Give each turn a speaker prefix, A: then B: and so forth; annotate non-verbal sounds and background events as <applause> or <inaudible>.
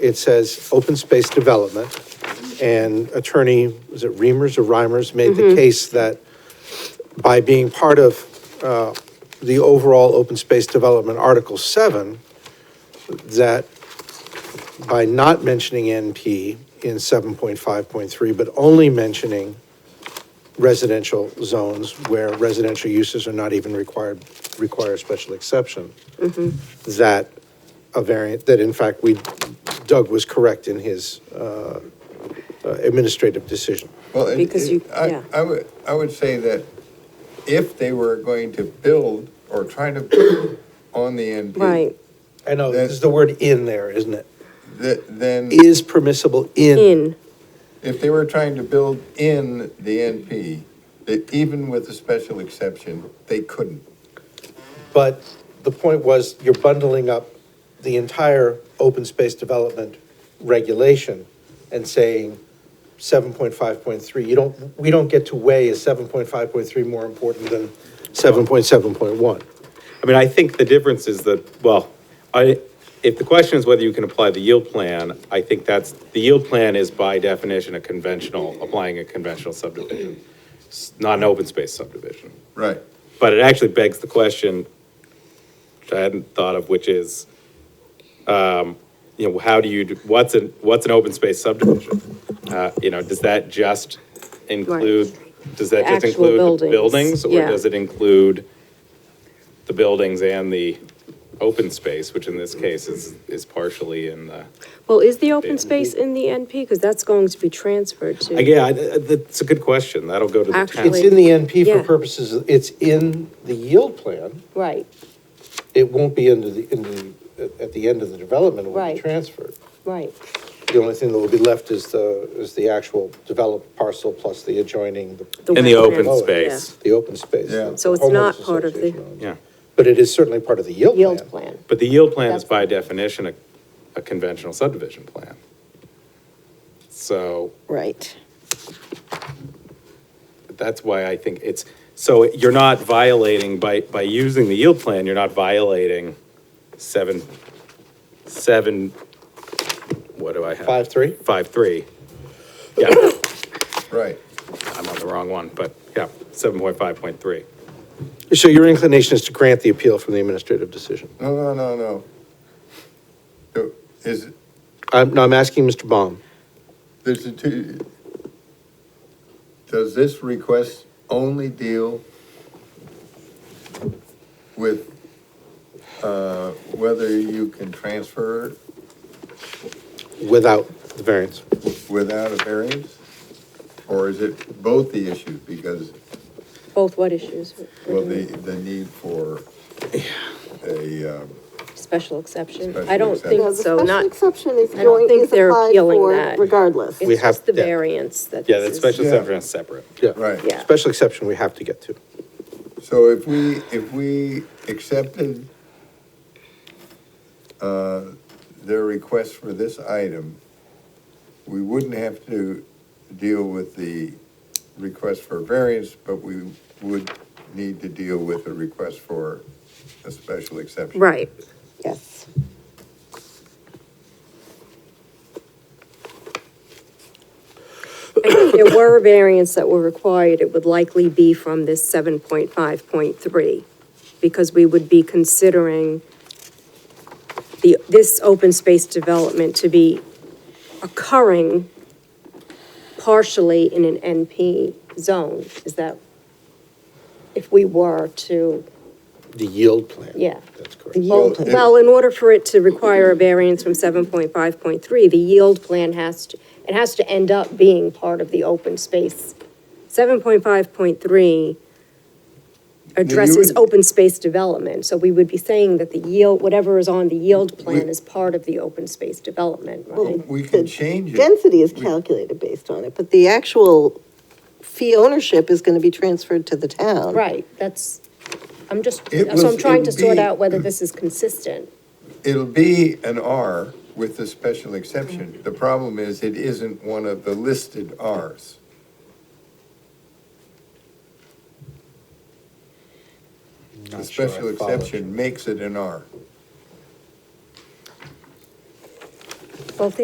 A: it says open space development, and attorney, was it Reimers or Reimers, made the case that by being part of uh, the overall open space development, Article 7, that by not mentioning NP in 7.5.3, but only mentioning residential zones where residential uses are not even required, require a special exception, that a variant, that in fact, we, Doug was correct in his uh, uh, administrative decision.
B: Well, and
C: Because you-
B: I-
C: yeah.
B: I would, I would say that if they were going to build or try to build on the NP.
C: Right,
A: I know, there's the word "in" there, isn't it?
B: th- Then,
A: Is permissible in.
C: in,
B: if they were trying to build in the NP, that even with a special exception, they couldn't.
A: But the point was, you're bundling up the entire open space development regulation and saying 7.5.3, you don't, we don't get to weigh is 7.5.3 more important than 7.7.1?
D: I mean, I think the difference is that, well, I, if the question is whether you can apply the yield plan, I think that's, the yield plan is by definition a conventional, applying a conventional subdivision, s- not an open space subdivision.
B: Right.
D: But it actually begs the question, which I hadn't thought of, which is, um, you know, how do you, do- what's an, what's an open space subdivision? Uh, you know, does that just include, does that just
C: Actual
D: include the
C: buildings,
D: buildings? Or
C: yeah.
D: does it include the buildings and the open space, which in this case is, is partially in the.
C: well, is the open space in the NP? Because that's going to be transferred to.
D: Again, I- I- that's a good question. That'll go to the
A: It's
C: Actually-
D: town.
A: in the NP
C: Yeah.
A: for purposes, of- it's in the yield plan,
C: Right,
A: it won't be into the, in the, at- at the end of the development, it will
C: Right.
A: be transferred.
C: right,
A: The only thing that will be left is the, is the actual developed parcel plus the adjoining, the-
C: The-
D: In the open
C: Oh, yeah.
D: space,
A: the open space.
B: Yeah.
A: that
C: So it's
A: homeowners
C: not part of the-
A: association owns.
D: yeah.
A: But it is certainly part of the yield plan.
C: yield plan.
D: But the yield plan is
C: That's-
D: by definition a, a conventional subdivision plan. So
C: Right.
D: that's why I think it's, so you're not violating, by, by using the yield plan, you're not violating seven, seven, what do I have?
A: Five, three?
D: Five, three. Yeah. <coughs>
B: Right.
D: I'm on the wrong one, but yeah, seven point five point three.
A: So your inclination is to grant the appeal from the administrative decision?
B: No, no, no, no. So, Is,
A: I'm, no, I'm asking Mr. Baum.
B: there's a two, does this request only deal with, uh, whether you can transfer
A: without the variance.
B: without a variance? Or is it both the issues because,
C: Both what issues?
B: well, the, the need for a, um,
C: Special exception?
B: Special
C: I don't
B: exception.
C: think
E: No, the
C: so,
E: special
C: not,
E: exception is
C: I don't
E: going,
C: think
E: is
C: they're
E: applied
C: appealing
E: for
C: that.
E: regardless.
A: We
C: it's
A: have-
C: just the
A: yeah.
C: variance that
D: Yeah,
C: this
D: that
C: is-
D: special
B: Yeah.
D: exception is separate.
A: Yeah.
B: right.
C: Yeah.
A: Special exception we have to get to.
B: So if we, if we accepted uh, their request for this item, we wouldn't have to deal with the request for variance, but we would need to deal with the request for a special exception.
C: Right,
E: Yes.
C: And if there were a variance that were required, it would likely be from this seven point five point three, because we would be considering the, this open space development to be occurring partially in an NP zone, is that, if we were to,
A: The yield plan.
C: Yeah.
A: That's correct.
E: The yield,
B: Well,
C: well, in order for it to require a variance from seven point five point three, the yield plan has to, it has to end up being part of the open space. Seven point five point three addresses
B: would-
C: open space development, so we would be saying that the yield, whatever is on the yield plan is part of the open space development,
B: Well,
C: right?
B: We
E: the
B: can change it.
E: density is
B: We-
E: calculated based on it, but the actual fee ownership is going to be transferred to the town.
C: Right, that's, I'm just,
B: It
C: so I'm
B: was-
C: trying
B: it
C: to
B: would
C: sort
B: be-
C: out whether this is consistent.
B: It'll be an R with the special exception. The problem is it isn't one of the listed Rs. The
A: Not sure I
B: special
A: followed
B: exception makes it an R.